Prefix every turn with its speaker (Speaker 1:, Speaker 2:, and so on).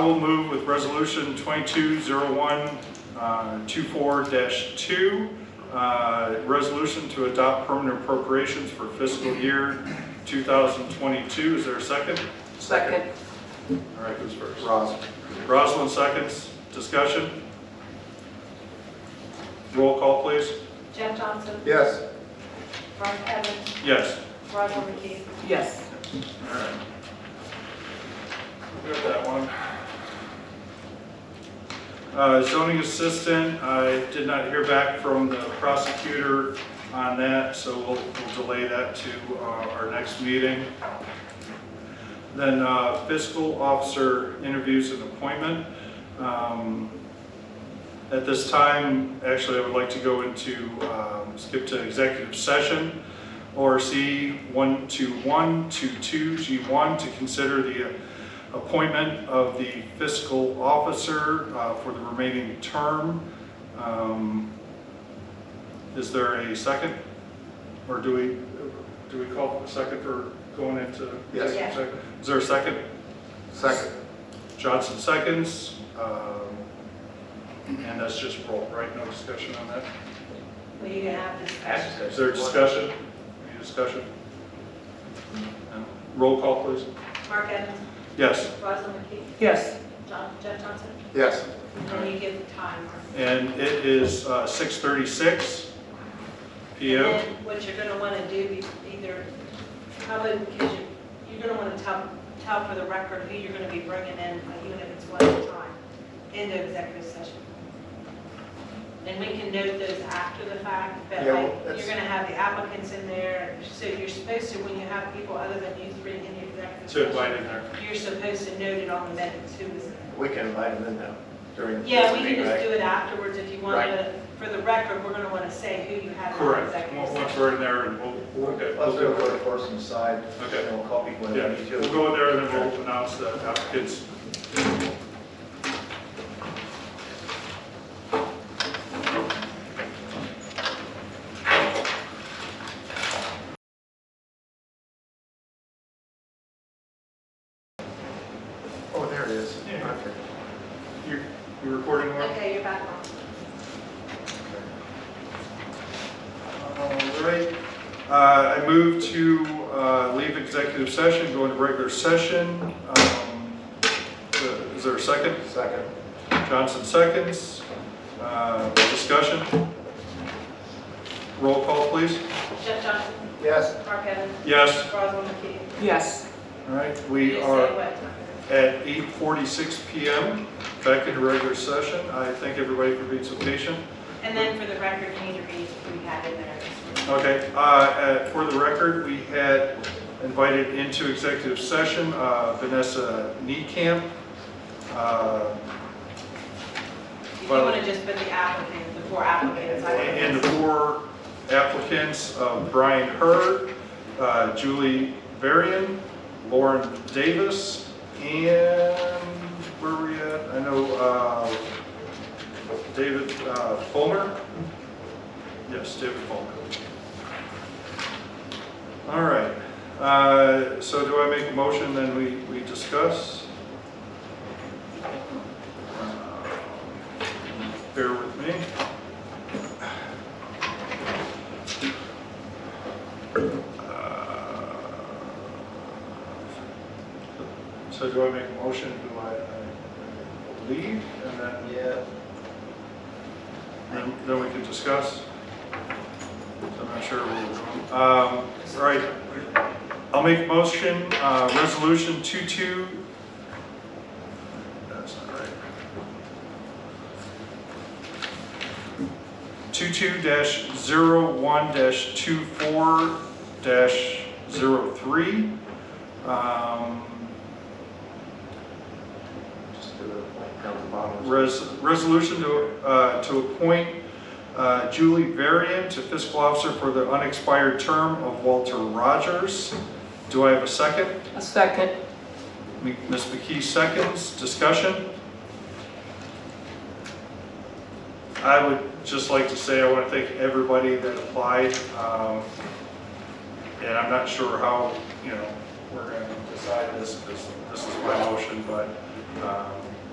Speaker 1: I will move with resolution uh, 220124-2, uh, resolution to adopt permanent appropriations for fiscal year 2022. Is there a second?
Speaker 2: Second.
Speaker 1: All right, who's first?
Speaker 2: Ross.
Speaker 1: Rosalind seconds. Discussion? Roll call, please.
Speaker 3: Jeff Johnson.
Speaker 2: Yes.
Speaker 3: Ron Evans.
Speaker 1: Yes.
Speaker 3: Roger McKee.
Speaker 4: Yes.
Speaker 1: All right. We have that one. Uh, Zoning assistant, I did not hear back from the prosecutor on that, so we'll we'll delay that to uh, our next meeting. Then uh, fiscal officer interviews and appointment. Um, At this time, actually, I would like to go into, um, skip to executive session. ORC 12122G1 to consider the appointment of the fiscal officer uh, for the remaining term. Um, Is there a second? Or do we, do we call for a second for going into?
Speaker 2: Yes.
Speaker 3: Yes.
Speaker 1: Is there a second?
Speaker 2: Second.
Speaker 1: Johnson seconds. Um, And that's just roll, right? No discussion on that?
Speaker 3: We have discussion.
Speaker 1: Is there discussion? Any discussion? No. Roll call, please.
Speaker 3: Mark Evans.
Speaker 1: Yes,
Speaker 3: Roger McKee.
Speaker 4: Yes.
Speaker 3: John- Jeff Johnson.
Speaker 2: Yes.
Speaker 3: And then you give the time. Mark.
Speaker 1: and it is uh, 6:36
Speaker 3: And
Speaker 1: PM.
Speaker 3: then what you're going to want to do, be- either, probably because you- you're going to want to tell, tell for the record who you're going to be bringing in, uh, even if it's one at a time, in the executive session. And we can note those after the fact, but
Speaker 2: Yeah, well,
Speaker 3: like, you're
Speaker 2: that's-
Speaker 3: going to have the applicants in there, so you're supposed to, when you have people other than you three in the executive
Speaker 1: To
Speaker 3: session.
Speaker 1: invite in there.
Speaker 3: You're supposed to note it on the minutes, who was there.
Speaker 2: We can invite them in now during.
Speaker 3: Yeah, we can
Speaker 2: meeting,
Speaker 3: just
Speaker 2: right?
Speaker 3: do it afterwards if you want
Speaker 2: Right.
Speaker 3: to, for the record, we're going to want to say who you had in the
Speaker 1: Correct.
Speaker 3: executive
Speaker 1: Once
Speaker 3: session.
Speaker 1: once we're in there, and we'll- we'll, okay, we'll
Speaker 2: Let's do
Speaker 1: do
Speaker 2: it for
Speaker 1: it.
Speaker 2: the first and side.
Speaker 1: Okay.
Speaker 2: And we'll call people when
Speaker 1: Yeah,
Speaker 2: we need to.
Speaker 1: we'll go in there and then we'll announce the applicants.
Speaker 2: Oh, there it is.
Speaker 1: Yeah.
Speaker 2: Okay.
Speaker 1: You you recording, Laura?
Speaker 3: Okay, you're back on.
Speaker 1: All right, Uh, I move to uh, leave executive session, go into regular session. Um, Is there a second?
Speaker 2: Second.
Speaker 1: Johnson seconds. Uh, Discussion? Roll call, please.
Speaker 3: Jeff Johnson,
Speaker 2: Yes.
Speaker 3: Mark Evans,
Speaker 1: Yes,
Speaker 3: Rosalind McKee.
Speaker 4: Yes.
Speaker 1: all right,
Speaker 3: You
Speaker 1: we
Speaker 3: say
Speaker 1: are
Speaker 3: what?
Speaker 1: at 8:46 PM, back into regular session. I thank everybody for being so patient.
Speaker 3: And then for the record, you need to read who we had in there.
Speaker 1: Okay, uh, uh, for the record, we had invited into executive session uh, Vanessa Niekamp. uh,
Speaker 3: If you
Speaker 1: Well-
Speaker 3: want to just put the applicant, the four applicants. I don't
Speaker 1: And
Speaker 3: know.
Speaker 1: the four applicants, uh, Brian Hurd, uh, Julie Varian, Lauren Davis, and where were we at? I know uh, David uh, Fulmer. Yes, David Fulmer. All right, Uh, so do I make a motion, then we we discuss? Bear with me. Uh, So do I make a motion, do I I leave, and then,
Speaker 2: Yeah.
Speaker 1: then- then we can discuss? So I'm not sure where we're going. Um, Right, I'll make a motion, uh, resolution 22, that's not right. 22-01-24-03. Um,
Speaker 2: Just do it like down the bottom.
Speaker 1: Res- Resolution to uh, to appoint uh, Julie Varian to fiscal officer for the unexpired term of Walter Rogers. Do I have a second?
Speaker 4: A second.
Speaker 1: M- Ms. McKee seconds. Discussion? I would just like to say I want to thank everybody that applied. um, And I'm not sure how, you know, we're going to decide this because this is my motion, but um,